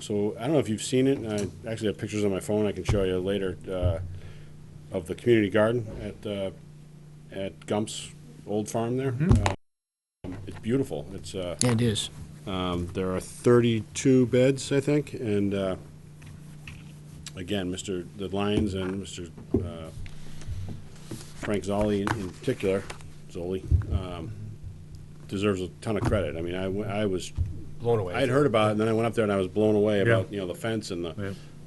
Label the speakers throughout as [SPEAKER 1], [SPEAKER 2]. [SPEAKER 1] so I don't know if you've seen it, and I actually have pictures on my phone I can show you later, uh, of the community garden at, uh, at Gump's old farm there. Um, It's beautiful. It's, uh,
[SPEAKER 2] Yeah, it is.
[SPEAKER 1] um, there are 32 beds, I think, and, uh, again, Mr. The Lyons and Mr. uh, Frank Zolli in- in particular, Zoli, um, deserves a ton of credit. I mean, I, w- I was
[SPEAKER 3] blown away.
[SPEAKER 1] I'd heard about it, and then I went up there and I was blown away
[SPEAKER 3] Yeah.
[SPEAKER 1] about, you know, the fence and
[SPEAKER 3] Yeah.
[SPEAKER 1] the,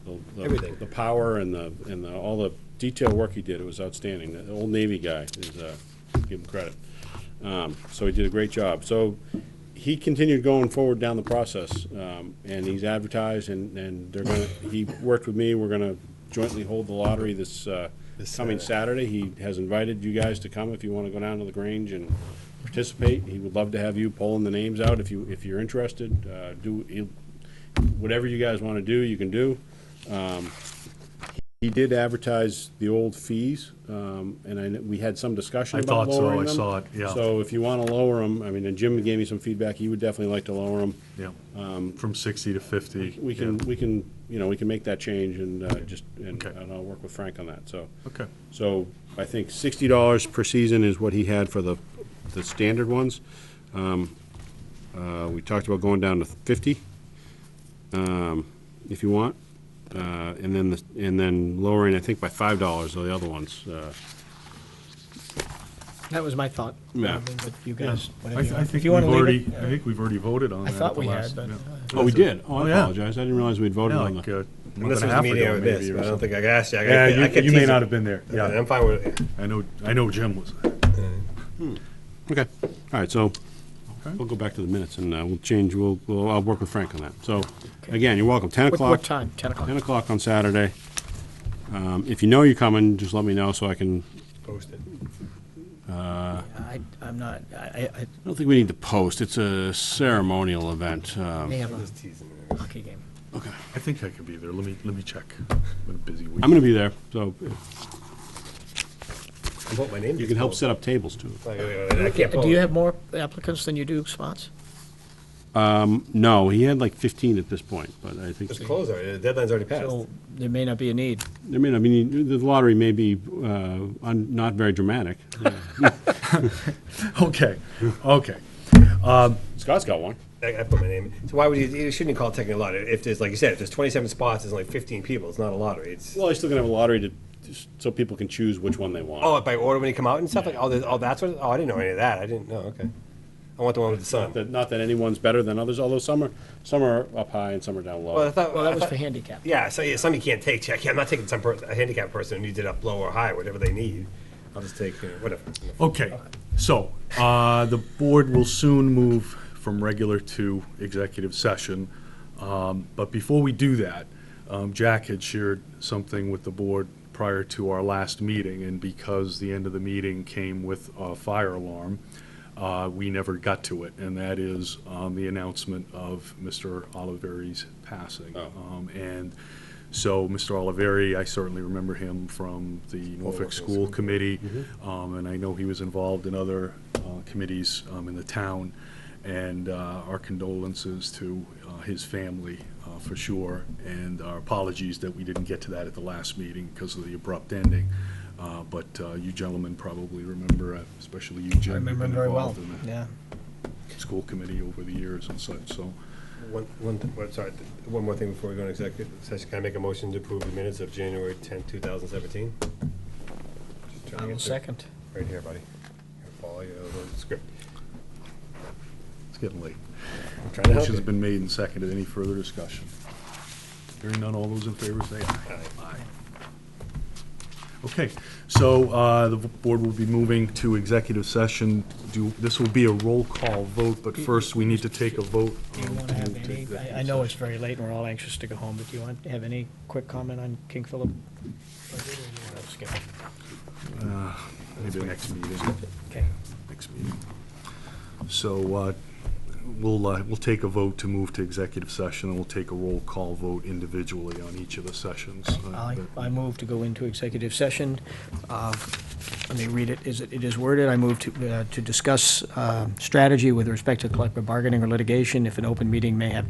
[SPEAKER 1] the- the-
[SPEAKER 3] Everything.
[SPEAKER 1] The power and the, and the, all the detail work he did, it was outstanding. The old Navy guy is, uh, give him credit. Um, so he did a great job. So he continued going forward down the process, um, and he's advertised and, and they're gonna, he worked with me, we're gonna jointly hold the lottery this, uh,
[SPEAKER 3] This
[SPEAKER 1] coming Saturday. He has invited you guys to come if you wanna go down to the Grange and participate. He would love to have you pulling the names out if you, if you're interested. Uh, do, he'll- whatever you guys wanna do, you can do. Um, He did advertise the old fees, um, and I, kn- we had some discussion
[SPEAKER 3] I
[SPEAKER 1] about
[SPEAKER 3] thought so.
[SPEAKER 1] lowering
[SPEAKER 3] I
[SPEAKER 1] them.
[SPEAKER 3] saw it, yeah.
[SPEAKER 1] So if you want to lower them, I mean, and Jim gave me some feedback, he would definitely like to lower them.
[SPEAKER 3] Yeah, Um, from 60 to 50.
[SPEAKER 1] We can, we can, you know, we can make that change and uh, just, and
[SPEAKER 3] Okay.
[SPEAKER 1] and I'll work with Frank on that, so.
[SPEAKER 3] Okay.
[SPEAKER 1] So I think sixty dollars per season is what he had for the, the standard ones. Um, uh, We talked about going down to fifty, um, if you want. Uh, And then, the- and then lowering, I think, by five dollars or the other ones. uh,
[SPEAKER 2] That was my thought.
[SPEAKER 1] Yeah.
[SPEAKER 2] Um, But you
[SPEAKER 3] Yeah.
[SPEAKER 2] guys, whatever you
[SPEAKER 3] I th- I
[SPEAKER 2] want. If
[SPEAKER 3] think
[SPEAKER 2] you
[SPEAKER 3] we've
[SPEAKER 2] want to
[SPEAKER 3] already,
[SPEAKER 2] leave it,
[SPEAKER 3] I think we've already voted on that. at
[SPEAKER 2] thought
[SPEAKER 3] the
[SPEAKER 2] we had,
[SPEAKER 3] last-
[SPEAKER 2] but,
[SPEAKER 3] yeah.
[SPEAKER 2] uh,
[SPEAKER 1] Oh, we did? Oh, I
[SPEAKER 3] yeah.
[SPEAKER 1] apologize. I didn't realize we'd voted
[SPEAKER 3] Yeah,
[SPEAKER 1] on
[SPEAKER 3] like
[SPEAKER 1] the.
[SPEAKER 3] a month
[SPEAKER 4] This
[SPEAKER 3] and a
[SPEAKER 4] was
[SPEAKER 3] half
[SPEAKER 4] media
[SPEAKER 3] ago
[SPEAKER 4] with this,
[SPEAKER 3] maybe
[SPEAKER 4] but
[SPEAKER 3] or
[SPEAKER 4] I don't
[SPEAKER 3] something.
[SPEAKER 4] think I asked you. I
[SPEAKER 3] Yeah,
[SPEAKER 4] could- I
[SPEAKER 3] you-
[SPEAKER 4] could
[SPEAKER 3] you may
[SPEAKER 4] tease
[SPEAKER 3] not
[SPEAKER 4] it. Uh,
[SPEAKER 3] have been there.
[SPEAKER 4] I'm
[SPEAKER 3] Yeah,
[SPEAKER 4] fine with it. Uh,
[SPEAKER 3] I know, I know Jim was.
[SPEAKER 1] Okay, all right, so we'll go back to the minutes and uh, we'll change, we'll, we'll- I'll work with Frank on that. So, again, you're welcome. Ten
[SPEAKER 2] What,
[SPEAKER 1] o'clock.
[SPEAKER 2] what time? 10 o'clock?
[SPEAKER 1] 10 o'clock on Saturday. Um, If you know you're coming, just let me know so I can,
[SPEAKER 4] Posted.
[SPEAKER 2] I, I'm not, I, I-
[SPEAKER 1] I don't think we need to post, it's a ceremonial event.
[SPEAKER 2] I
[SPEAKER 1] Um,
[SPEAKER 2] may have a
[SPEAKER 4] Just teasing.
[SPEAKER 2] hockey game.
[SPEAKER 3] I think I could be there. Let me, let me check. Been a busy week.
[SPEAKER 1] I'm going to be there, so if
[SPEAKER 4] I want my name.
[SPEAKER 1] you can help set up tables too.
[SPEAKER 4] uh, I can't
[SPEAKER 2] Do you
[SPEAKER 4] vote.
[SPEAKER 2] have more applicants than you do spots?
[SPEAKER 1] No, he had like 15 at this point, but I think
[SPEAKER 4] It's closed already. The deadline's already passed.
[SPEAKER 2] So there may not be a need.
[SPEAKER 1] I mean, I mean, the lottery may be uh, un- not very dramatic.
[SPEAKER 3] Okay, okay.
[SPEAKER 1] Scott's got one.
[SPEAKER 4] I, I put my name. So why would you, you shouldn't call it technically a lottery? If there's, like you said, if there's twenty-seven spots, there's only fifteen people. It's not a lottery. It's,
[SPEAKER 1] Well, he's still going to have a lottery to, just so people can choose which one they want.
[SPEAKER 4] oh, by order when you come out and stuff like, oh, there's, oh, that's what, oh, I didn't know any of that. I didn't know, okay. I want the one with the sun.
[SPEAKER 1] That- Not that anyone's better than others, although some are, some are up high and some are down
[SPEAKER 4] Well, I
[SPEAKER 1] low.
[SPEAKER 4] thought.
[SPEAKER 2] Well, that
[SPEAKER 4] I
[SPEAKER 2] was
[SPEAKER 4] thought-
[SPEAKER 2] for handicap.
[SPEAKER 4] Yeah, so yeah, some you can't take. Check. I'm not taking some person, a handicapped person who needs it up low or high, whatever they need. I'll just take you know, whatever.
[SPEAKER 3] Okay, so, uh, the board will soon move from regular to executive session. Um, But before we do that, um, Jack had shared something with the board prior to our last meeting, and because the end of the meeting came with a fire alarm, uh, we never got to it, and that is um, the announcement of Mr. Oliveri's passing. Um, And so, Mr. Oliveri, I certainly remember him from the Norfolk School Committee,
[SPEAKER 2] Mm-hmm.
[SPEAKER 3] um, and I know he was involved in other uh, committees um, in the town, and uh, our condolences to uh, his family, uh, for sure, and our apologies that we didn't get to that at the last meeting because of the abrupt ending. Uh, But uh, you gentlemen probably remember, uh, especially you, Jim.
[SPEAKER 2] I
[SPEAKER 3] you've been
[SPEAKER 2] remember very well,
[SPEAKER 3] involved in the-
[SPEAKER 2] yeah.
[SPEAKER 3] school committee over the years and such, so.
[SPEAKER 4] One, one, th- what- sorry, th- one more thing before we go into executive session. Can I make a motion to approve the minutes of January 10, 2017? Just trying
[SPEAKER 2] I
[SPEAKER 4] to
[SPEAKER 2] will
[SPEAKER 4] get the-
[SPEAKER 2] second.
[SPEAKER 4] Right here, buddy. Here, Follow your little script.
[SPEAKER 3] It's getting late.
[SPEAKER 4] I'm trying to help
[SPEAKER 3] Motion's
[SPEAKER 4] you.
[SPEAKER 3] been made and seconded. Any further discussion? Hearing none, all those in favor say aye. Aye. Okay, so uh, the board will be moving to executive session. Do, this will be a roll call vote, but first we need to take a vote.
[SPEAKER 2] Do you
[SPEAKER 3] um,
[SPEAKER 2] want to have
[SPEAKER 3] to
[SPEAKER 2] any,
[SPEAKER 3] executive
[SPEAKER 2] I, I know it's
[SPEAKER 3] session.
[SPEAKER 2] very late and we're all anxious to go home, but do you want to have any quick comment on King Philip?
[SPEAKER 3] Maybe next meeting,
[SPEAKER 2] Okay.
[SPEAKER 3] next meeting. So uh, we'll, uh, we'll take a vote to move to executive session, and we'll take a roll call vote individually on each of the sessions. uh,
[SPEAKER 2] I,
[SPEAKER 3] that-
[SPEAKER 2] I move to go into executive session. Uh, Let me read it. Is it, it is worded, I move uh, to, uh, to discuss um, strategy with respect to collective bargaining or litigation if an open meeting may have